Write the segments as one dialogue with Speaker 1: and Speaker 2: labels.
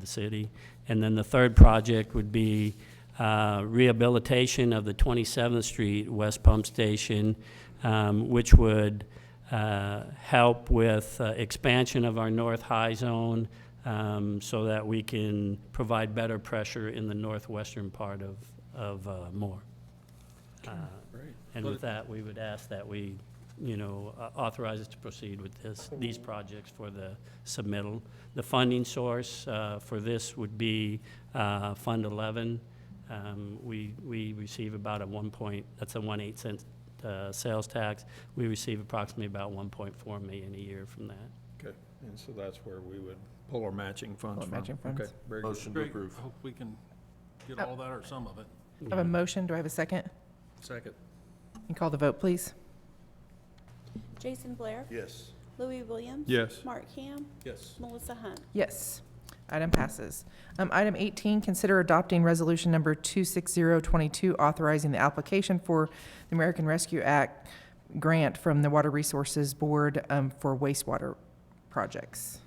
Speaker 1: the city. And then the third project would be uh, rehabilitation of the 27th Street West Pump Station, um, which would uh, help with uh, expansion of our North High Zone um, so that we can provide better pressure in the northwestern part of, of uh, Moore. Uh,
Speaker 2: Great.
Speaker 1: And
Speaker 2: Well,
Speaker 1: with that, we would ask that we, you know, au- authorize us to proceed with this, these projects for the submittal. The funding source uh, for this would be uh, Fund 11. Um, We, we receive about a one point, that's a one eight cent uh, sales tax. We receive approximately about 1.4 million a year from that.
Speaker 2: Okay, and so that's where we would pull our matching funds
Speaker 3: Pull our
Speaker 2: from.
Speaker 3: matching funds.
Speaker 2: Okay, very good.
Speaker 4: Motion to
Speaker 5: Great,
Speaker 4: approve.
Speaker 5: hope we can get all that or some of it.
Speaker 3: I have a motion. Do I have a second?
Speaker 2: Second.
Speaker 3: And call the vote, please.
Speaker 6: Jason Blair,
Speaker 4: Yes.
Speaker 6: Louis Williams.
Speaker 2: Yes.
Speaker 6: Mark Ham,
Speaker 2: Yes.
Speaker 6: Melissa Hunt.
Speaker 3: Yes. Item passes. Um, Item 18, consider adopting Resolution Number 26022, authorizing the application for the American Rescue Act grant from the Water Resources Board um, for wastewater projects.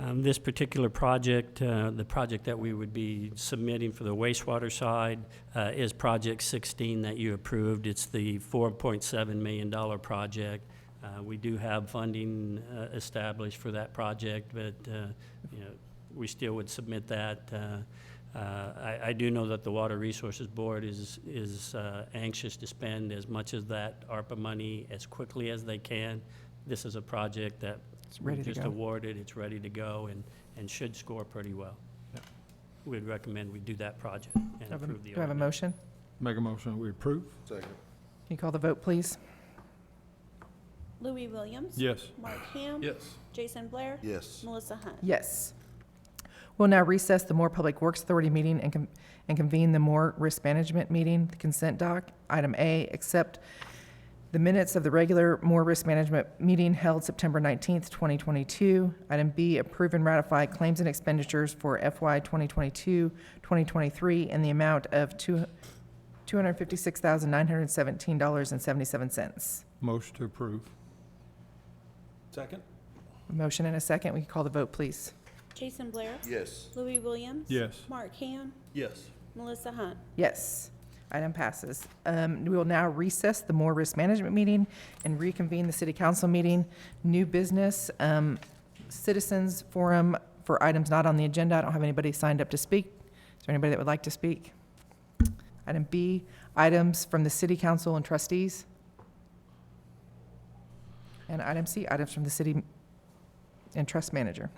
Speaker 1: Um, This particular project, uh, the project that we would be submitting for the wastewater side uh, is Project 16 that you approved. It's the $4.7 million project. Uh, We do have funding uh, established for that project, but, uh, you know, we still would submit that. uh, uh, I I do know that the Water Resources Board is is uh, anxious to spend as much of that ARPA money as quickly as they can. This is a project that
Speaker 3: It's ready
Speaker 1: we
Speaker 3: to
Speaker 1: Just
Speaker 3: go.
Speaker 1: awarded, it's ready to go, and, and should score pretty well.
Speaker 2: Yeah.
Speaker 1: We'd recommend we do that project and
Speaker 3: Do I have a-
Speaker 1: approve the
Speaker 3: Do I have a
Speaker 1: ordinance.
Speaker 3: motion?
Speaker 2: Make a motion, we approve?
Speaker 4: Second.
Speaker 3: Can you call the vote, please?
Speaker 6: Louis Williams.
Speaker 2: Yes.
Speaker 6: Mark Ham.
Speaker 5: Yes.
Speaker 6: Jason Blair.
Speaker 4: Yes.
Speaker 6: Melissa Hunt.
Speaker 3: Yes. We'll now recess the Moore Public Works Authority meeting and con- and convene the Moore Risk Management meeting, the consent doc. Item A, accept the minutes of the regular Moore Risk Management meeting held September 19th, 2022. Item B, approve and ratify claims and expenditures for FY 2022, 2023 in the amount of two $256,917.77.
Speaker 2: Motion to approve.
Speaker 5: Second?
Speaker 3: Motion and a second. We can call the vote, please.
Speaker 6: Jason Blair.
Speaker 4: Yes.
Speaker 6: Louis Williams.
Speaker 2: Yes.
Speaker 6: Mark Ham,
Speaker 5: Yes.
Speaker 6: Melissa Hunt.
Speaker 3: Yes, item passes. Um, We will now recess the Moore Risk Management meeting and reconvene the city council meeting. New business, um, citizens forum for items not on the agenda. I don't have anybody signed up to speak. Is there anybody that would like to speak? Item B, items from the city council and trustees. And item C, items from the city and trust manager.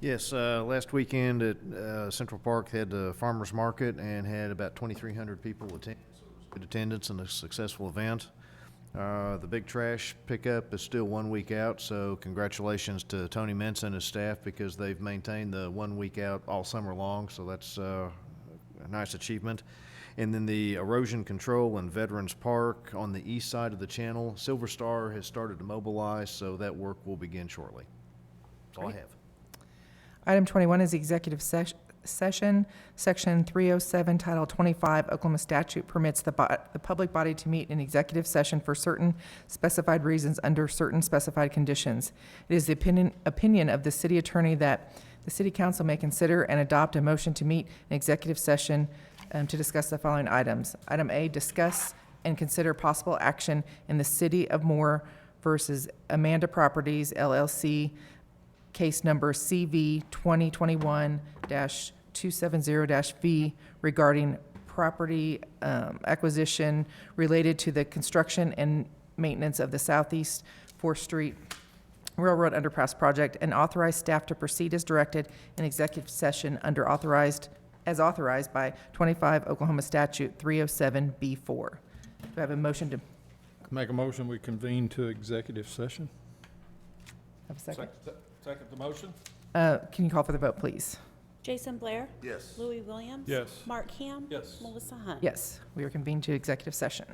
Speaker 7: Yes, uh, last weekend at uh, Central Park had the farmers market and had about 2,300 people attend. so it was Good attendance and a successful event. Uh, the big trash pickup is still one week out, so congratulations to Tony Mintz and his staff because they've maintained the one week out all summer long. So that's uh, a nice achievement. And then the erosion control in Veterans Park on the east side of the channel, Silver Star has started to mobilize, so that work will begin shortly. That's all I have.
Speaker 3: Item 21 is the executive sesh- session. Section 307, Title 25 Oklahoma statute permits the, bo- the public body to meet in executive session for certain specified reasons under certain specified conditions. It is the opinion, opinion of the city attorney that the city council may consider and adopt a motion to meet in executive session um, to discuss the following items. Item A, discuss and consider possible action in the city of Moore versus Amanda Properties LLC, case number CV 2021-270-V regarding property um, acquisition related to the construction and maintenance of the Southeast Fourth Street Railroad Underpass Project, and authorize staff to proceed as directed in executive session under authorized, as authorized by 25 Oklahoma Statute 307B4. Do I have a motion to,
Speaker 2: Make a motion, we convene to executive session?
Speaker 3: have a second?
Speaker 5: Second the motion?
Speaker 3: Uh, Can you call for the vote, please?
Speaker 6: Jason Blair.
Speaker 4: Yes.
Speaker 6: Louis Williams.
Speaker 2: Yes.
Speaker 6: Mark Ham.
Speaker 5: Yes.
Speaker 6: Melissa Hunt.
Speaker 3: Yes, we are convened to executive session.